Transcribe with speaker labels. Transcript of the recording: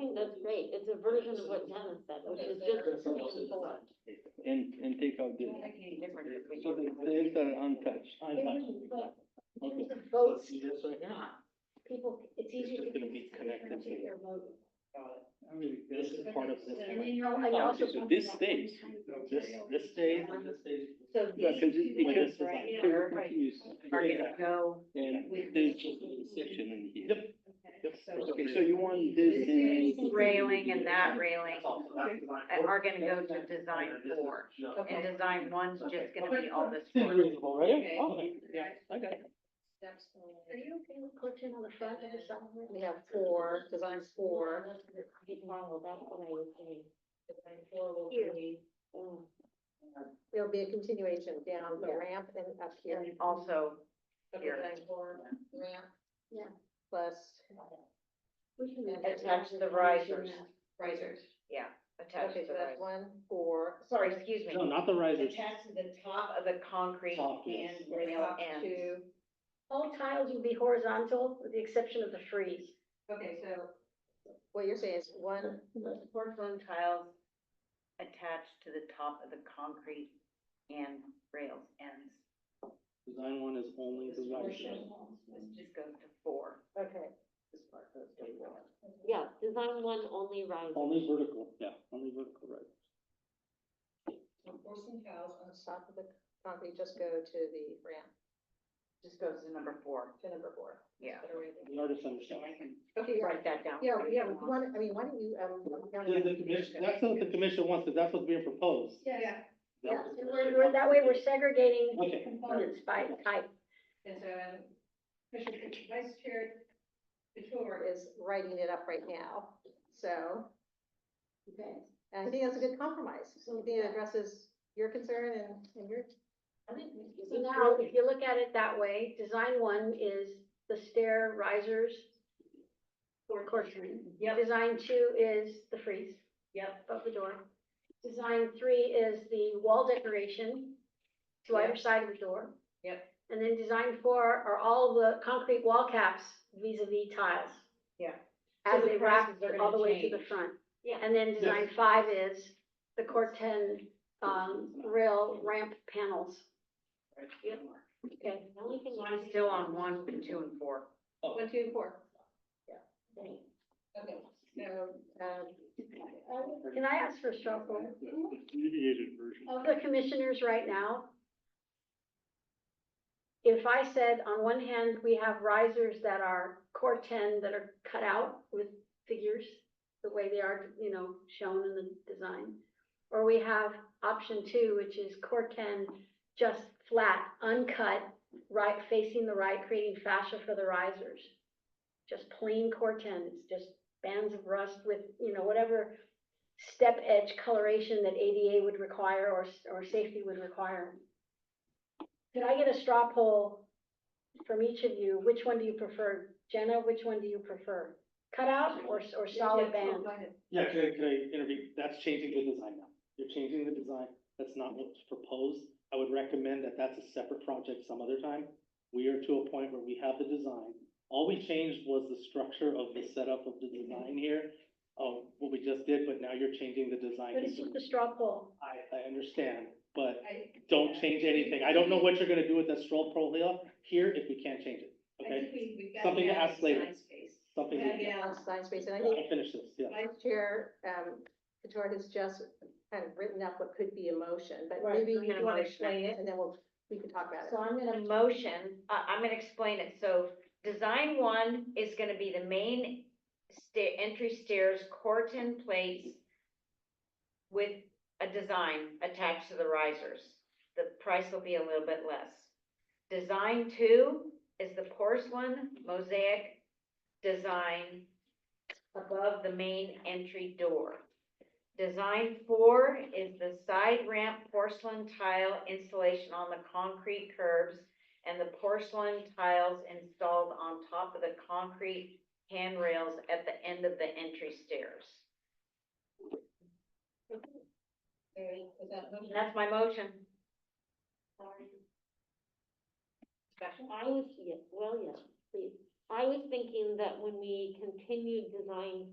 Speaker 1: Right, it's a version of what Dennis said, which is just a plain board.
Speaker 2: and, and take out the, so the, the eggs are untouched.
Speaker 1: But
Speaker 2: Okay.
Speaker 1: the
Speaker 2: So
Speaker 1: votes,
Speaker 2: see this right here?
Speaker 1: people, it's
Speaker 2: It's
Speaker 1: easier to.
Speaker 2: just gonna be connected to-
Speaker 1: your vote.
Speaker 2: This is part of this. plan.
Speaker 1: I
Speaker 2: Oh,
Speaker 1: also
Speaker 2: so
Speaker 1: wonder
Speaker 2: this
Speaker 1: about
Speaker 2: stays.
Speaker 1: sometimes-
Speaker 2: This, this stays and this stays.
Speaker 1: So
Speaker 2: Yeah,
Speaker 1: these
Speaker 2: cause
Speaker 1: two
Speaker 2: it, because.
Speaker 1: ones
Speaker 2: it's
Speaker 1: right
Speaker 2: like-
Speaker 1: here,
Speaker 2: it continues.
Speaker 1: are
Speaker 2: Yeah.
Speaker 1: gonna go.
Speaker 2: And there's just a section in here. Yep. Okay, so
Speaker 3: Okay,
Speaker 2: you want this. in-
Speaker 4: This railing and that railing
Speaker 3: and
Speaker 4: are gonna go to design four. And design one's just gonna be all this.
Speaker 2: Seems
Speaker 4: wood.
Speaker 2: reasonable, right? Oh,
Speaker 3: Okay.
Speaker 2: Okay, Yeah, I got it.
Speaker 1: Are you okay with clutching on the front of the summer?
Speaker 5: We have four, design four.
Speaker 1: Get normal, that's what I was saying.
Speaker 5: Here.
Speaker 1: Mm.
Speaker 5: There'll be a continuation down the ramp and up here.
Speaker 4: And also here.
Speaker 5: Design four, Ramp.
Speaker 1: Yeah.
Speaker 5: Plus
Speaker 1: We can make that
Speaker 4: Attach the
Speaker 1: happen.
Speaker 4: risers,
Speaker 5: risers.
Speaker 4: yeah, attach
Speaker 5: Okay,
Speaker 4: the
Speaker 5: so that's
Speaker 4: risers.
Speaker 5: one, four.
Speaker 4: Sorry, excuse
Speaker 2: No,
Speaker 4: me.
Speaker 2: not the risers.
Speaker 4: Attach to the top of the concrete
Speaker 2: Top,
Speaker 4: and
Speaker 2: yes.
Speaker 4: rail
Speaker 5: Top
Speaker 4: ends.
Speaker 5: two.
Speaker 1: All tiles will be horizontal with the exception of the freeze.
Speaker 5: Okay, so. What you're saying is one,
Speaker 4: Porcelain tiles attached to the top of the concrete and rails ends.
Speaker 2: Design one is only the risers.
Speaker 4: This just goes to four.
Speaker 5: okay.
Speaker 1: Yeah, design one only rises.
Speaker 2: Only vertical, yeah, only vertical risers.
Speaker 5: Forcing tiles on the top of the concrete just go to the ramp,
Speaker 4: Just goes to number four.
Speaker 5: to number four.
Speaker 4: Yeah.
Speaker 5: Better way to-
Speaker 2: The artist understands.
Speaker 4: I can
Speaker 5: Okay, yeah,
Speaker 4: write that down.
Speaker 5: yeah,
Speaker 4: for you if
Speaker 5: yeah,
Speaker 4: you want.
Speaker 5: one, I mean, why don't you, um.
Speaker 2: The, the commission, that's what the commission wants, 'cause that's what's being proposed.
Speaker 5: Yeah.
Speaker 1: Yeah, and we're, we're, that way we're segregating
Speaker 2: Okay.
Speaker 1: components by type.
Speaker 5: And so, Commissioner, Vice Chair Couture is writing it up right now, so.
Speaker 1: Okay.
Speaker 5: And I think that's a good compromise, I think it addresses your concern and, and your.
Speaker 1: So now, if you look at it that way, design one is the stair risers. Or courtroom.
Speaker 4: Yep.
Speaker 1: Design two is the freeze.
Speaker 4: Yep.
Speaker 1: Above the door. Design three is the wall decoration to either side of the door.
Speaker 4: Yep.
Speaker 1: And then design four are all the concrete wall caps vis a vis tiles.
Speaker 4: Yeah.
Speaker 1: As
Speaker 4: So the
Speaker 1: they wrap
Speaker 4: prices are
Speaker 1: all the
Speaker 4: gonna
Speaker 1: way to the
Speaker 4: change.
Speaker 1: front. Yeah. And then design five is the Corten, um, rail ramp panels. Okay.
Speaker 4: So I'm still on one, two, and four.
Speaker 5: One, two, and four.
Speaker 1: Okay.
Speaker 5: Okay. So, um,
Speaker 1: Can I ask for a shuffle
Speaker 2: Mediated version.
Speaker 1: of the commissioners right now? If I said, on one hand, we have risers that are core ten that are cut out with figures, the way they are, you know, shown in the design. Or we have option two, which is core ten, just flat, uncut, right, facing the right, creating fascia for the risers. Just plain core ten, it's just bands of rust with, you know, whatever step edge coloration that ADA would require or, s- or safety would require. Could I get a straw poll from each of you? Which one do you prefer? Jenna, which one do you prefer? Cutout or, s- or solid
Speaker 5: yeah,
Speaker 1: band?
Speaker 5: go ahead.
Speaker 2: Yeah, can I, can I intervene? That's changing the design now. You're changing the design. That's not what's proposed. I would recommend that that's a separate project some other time. We are to a point where we have the design. All we changed was the structure of the setup of the design here, of what we just did, but now you're changing the design.
Speaker 1: But it's just a straw poll.
Speaker 2: I, I understand, but
Speaker 5: I-
Speaker 2: don't change anything. I don't know what you're gonna do with that stroll pro hill here if we can't change it,
Speaker 3: I
Speaker 2: okay?
Speaker 3: think we- we've got
Speaker 2: Something to
Speaker 3: it out of
Speaker 2: ask later.
Speaker 3: design space.
Speaker 2: Something,
Speaker 3: Yeah,
Speaker 2: I
Speaker 3: yeah.
Speaker 5: on design space, and I think
Speaker 2: finish this, yeah.
Speaker 5: Vice Chair, um, Couture has just kind of written up what could be a motion, but
Speaker 4: Right,
Speaker 5: maybe
Speaker 4: I'm gonna
Speaker 5: you want to
Speaker 4: motion it.
Speaker 5: explain it, and then we'll, we can talk about it.
Speaker 4: So I'm gonna motion, I, I'm gonna explain it, so design one is gonna be the main sta- entry stairs, corten plates with a design attached to the risers, the price will be a little bit less. Design two is the porcelain mosaic design above the main entry door. Design four is the side ramp porcelain tile installation on the concrete curbs and the porcelain tiles installed on top of the concrete handrails at the end of the entry stairs. And that's my motion. Discussion?
Speaker 1: I was, yeah, well, yeah, please. I was thinking that when we continued design